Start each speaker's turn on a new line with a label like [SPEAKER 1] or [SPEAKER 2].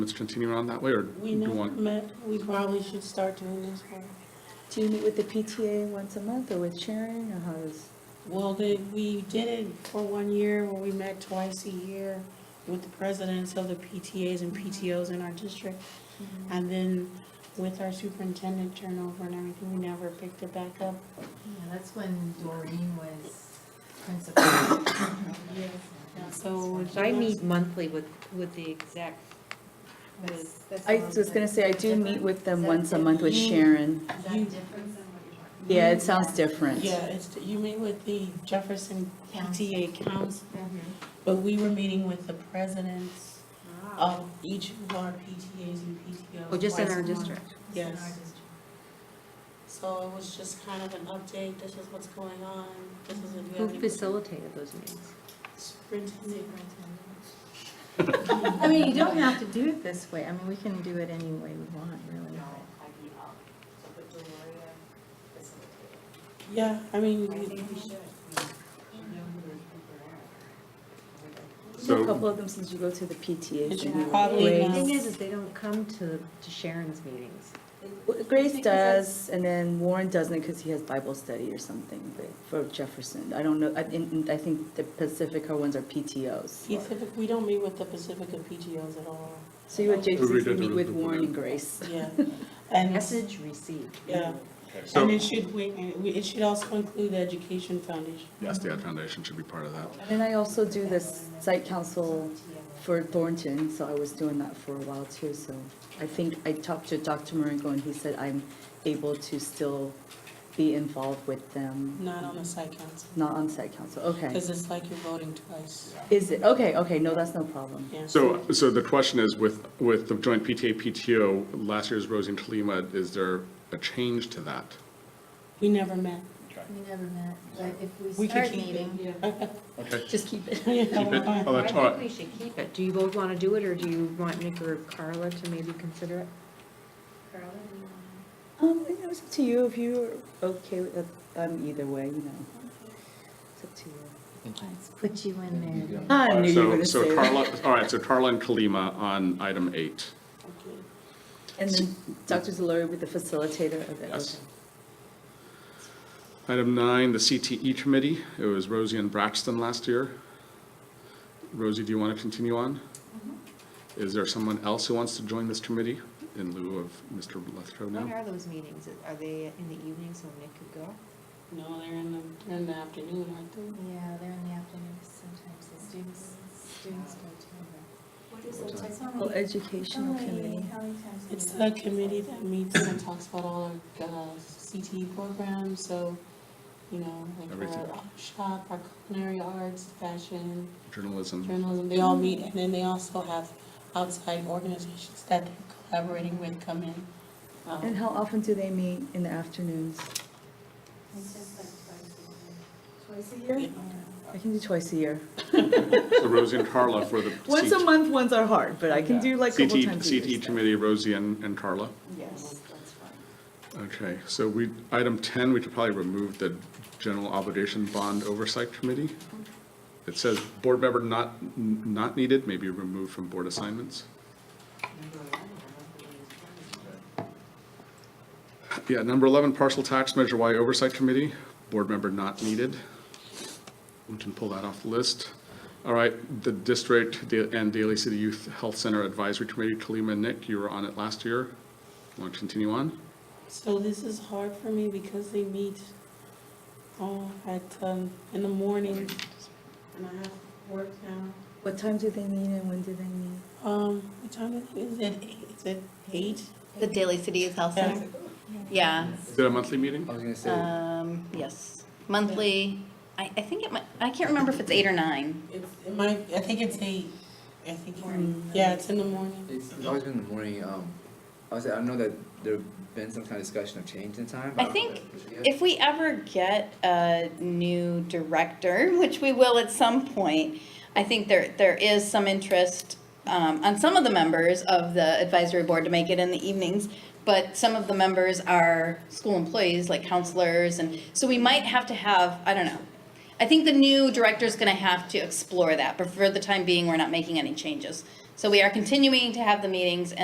[SPEAKER 1] Let's continue on that way, or do
[SPEAKER 2] We
[SPEAKER 1] you
[SPEAKER 2] never
[SPEAKER 1] want?
[SPEAKER 2] met, we probably should start doing this work.
[SPEAKER 3] Do you meet with the PTA once a month or with Sharon or how is?
[SPEAKER 2] Well, they, we did it for one year where we met twice a year with the presidents of the PTAs and PTOs in our district. And then with our superintendent turnover and everything, we never picked it back up.
[SPEAKER 4] Yeah, that's when Doreen was principal.
[SPEAKER 2] So.
[SPEAKER 5] I meet monthly with, with the exec.
[SPEAKER 4] That's- that's
[SPEAKER 3] I
[SPEAKER 4] the one
[SPEAKER 3] was gonna
[SPEAKER 4] that-
[SPEAKER 3] say, I do meet with them once a month with
[SPEAKER 4] Is that
[SPEAKER 3] Sharon.
[SPEAKER 4] different than what you're talking
[SPEAKER 3] Yeah, it sounds different.
[SPEAKER 2] Mm-hmm. Yeah, it's, you meet with the Jefferson PTA Council,
[SPEAKER 4] about?
[SPEAKER 2] but we were meeting with the presidents
[SPEAKER 4] Oh,
[SPEAKER 2] of each of our PTAs and PTOs.
[SPEAKER 5] Well, just in
[SPEAKER 2] twice
[SPEAKER 5] our
[SPEAKER 2] a month.
[SPEAKER 5] district.
[SPEAKER 4] it's in our
[SPEAKER 2] yes.
[SPEAKER 4] district.
[SPEAKER 2] So it was just kind of an update, this is what's going on, this is if you
[SPEAKER 5] Who
[SPEAKER 2] have any-
[SPEAKER 5] facilitated those meetings?
[SPEAKER 2] Superintendent.
[SPEAKER 4] Superintendent.
[SPEAKER 3] I mean, you don't have to do it this way. I mean, we can do it any way we want, really.
[SPEAKER 2] Yeah, I mean,
[SPEAKER 4] I
[SPEAKER 2] we-
[SPEAKER 4] think we should.
[SPEAKER 3] A
[SPEAKER 1] So,
[SPEAKER 3] couple of them since you go to the PTAs.
[SPEAKER 2] It's
[SPEAKER 3] anyway.
[SPEAKER 2] probably
[SPEAKER 5] The
[SPEAKER 2] not-
[SPEAKER 5] thing is, is they don't come to, to Sharon's meetings.
[SPEAKER 3] Well, Grace does, and then Warren doesn't because he has Bible study or something but for Jefferson. I don't know, I, in- I think the Pacifica ones are PTOs.
[SPEAKER 2] Pacific, we don't meet with the Pacifica PTOs at all,
[SPEAKER 3] So you
[SPEAKER 1] We
[SPEAKER 3] would
[SPEAKER 1] did
[SPEAKER 3] JCC meet
[SPEAKER 1] the-
[SPEAKER 3] with
[SPEAKER 1] the-
[SPEAKER 3] Warren and Grace.
[SPEAKER 2] yeah. And,
[SPEAKER 5] Message received.
[SPEAKER 2] yeah,
[SPEAKER 1] so,
[SPEAKER 2] and it should, we, we- it should also include the Education Foundation.
[SPEAKER 1] yes, the Ad Foundation should be part of that.
[SPEAKER 3] And then I also do this site council for Thornton, so I was doing that for a while too, so I think I talked to Dr. Maringo and he said I'm able to still be involved with them,
[SPEAKER 2] Not on the site council,
[SPEAKER 3] not on site council, Mm-hmm. okay.
[SPEAKER 2] because it's like you're voting twice.
[SPEAKER 3] Is it, okay, okay, no, that's no problem.
[SPEAKER 2] Yeah.
[SPEAKER 1] So, so the question is with, with the joint PTA, PTO, last year's Rosie and Talima, is there a change to that?
[SPEAKER 2] We never met.
[SPEAKER 4] We never met, but if we
[SPEAKER 2] We could
[SPEAKER 4] start
[SPEAKER 2] keep it.
[SPEAKER 4] meeting,
[SPEAKER 1] Okay.
[SPEAKER 3] Just keep it.
[SPEAKER 1] Keep it?
[SPEAKER 2] Yeah,
[SPEAKER 1] Oh,
[SPEAKER 5] I
[SPEAKER 1] that's all
[SPEAKER 5] think we
[SPEAKER 1] right.
[SPEAKER 5] should keep it. Do you both want to do it, or do you want Nick or Carla to maybe consider it?
[SPEAKER 4] Carla, do you wanna-
[SPEAKER 3] Um, you know, it's up to you, if you're okay with it, um, either way, you know. It's up to you.
[SPEAKER 4] Let's put you in there.
[SPEAKER 3] I knew you were
[SPEAKER 1] So,
[SPEAKER 3] gonna say
[SPEAKER 1] so
[SPEAKER 3] that.
[SPEAKER 1] Carla, all right, so Carla and Kalima on item eight.
[SPEAKER 2] Okay.
[SPEAKER 3] And then Dr. Delory with the facilitator of it.
[SPEAKER 1] Yes.
[SPEAKER 3] okay.
[SPEAKER 1] Item nine, the CTE Committee. It was Rosie and Braxton last year. Rosie, do you want to continue on?
[SPEAKER 3] Mm-hmm.
[SPEAKER 1] Is there someone else who wants to join this committee in lieu of Mr. Lethrow
[SPEAKER 5] When
[SPEAKER 1] now?
[SPEAKER 5] are those meetings? Are they in the evening so Nick could go?
[SPEAKER 2] No, they're in the, they're in the afternoon, aren't they?
[SPEAKER 4] Yeah, they're in the afternoon, 'cause sometimes the students, students go to them. What is
[SPEAKER 3] Well, educational committee.
[SPEAKER 2] It's a committee that meets and talks about all our uh, CTE programs, so, you know, like
[SPEAKER 1] Everything.
[SPEAKER 2] our shop, our culinary arts, fashion,
[SPEAKER 1] Journalism.
[SPEAKER 2] journalism, they all meet, and then they also have outside organizations that they're collaborating with come in. Um,
[SPEAKER 3] And how often do they meet in the afternoons?
[SPEAKER 4] Twice a
[SPEAKER 2] Yeah.
[SPEAKER 3] I can do twice a year.
[SPEAKER 1] So Rosie and Carla for the
[SPEAKER 3] Once a
[SPEAKER 1] CT
[SPEAKER 3] month ones are hard, but I can do like a couple
[SPEAKER 1] CTE,
[SPEAKER 3] times a year.
[SPEAKER 1] CTE Committee, Rosie and and Carla.
[SPEAKER 3] Yes.
[SPEAKER 1] Okay, so we, item 10, we could probably remove the General Obligation Bond Oversight Committee. It says board member not, n- not needed, maybe removed from board assignments. Yeah, number 11, Partial Tax Measure Y Oversight Committee, board member not needed. We can pull that off the list. All right, the district da- and Daly City Youth Health Center Advisory Committee, Kalima and Nick, you were on it last year. Want to continue on?
[SPEAKER 2] So this is hard for me because they meet, oh, at, um, in the morning, and I have work now.
[SPEAKER 3] What time do they meet and when do they meet?
[SPEAKER 2] Um, what time is it? Is it eight? Is it eight?
[SPEAKER 6] The Daily City Youth Health
[SPEAKER 2] Yeah.
[SPEAKER 6] Center? Yeah,
[SPEAKER 1] Is it a monthly meeting?
[SPEAKER 7] I was gonna say,
[SPEAKER 6] um, yes, monthly, I, I think it might, I can't remember if it's eight or nine.
[SPEAKER 2] It's, it might, I think it's eight, I think, it's- yeah, it's in the morning.
[SPEAKER 7] it's it's always been in the morning, um, I was, I know that there've been some kind of discussion of change in time, but
[SPEAKER 6] I
[SPEAKER 7] I don't know
[SPEAKER 6] think
[SPEAKER 7] if it's yet.
[SPEAKER 6] If we ever get a new director, which we will at some point, I think there, there is some interest um, on some of the members of the advisory board to make it in the evenings, but some of the members are school employees, like counselors, and so we might have to have, I don't know. I think the new director's gonna have to explore that, but for the time being, we're not making any changes. So we are continuing to have the meetings, and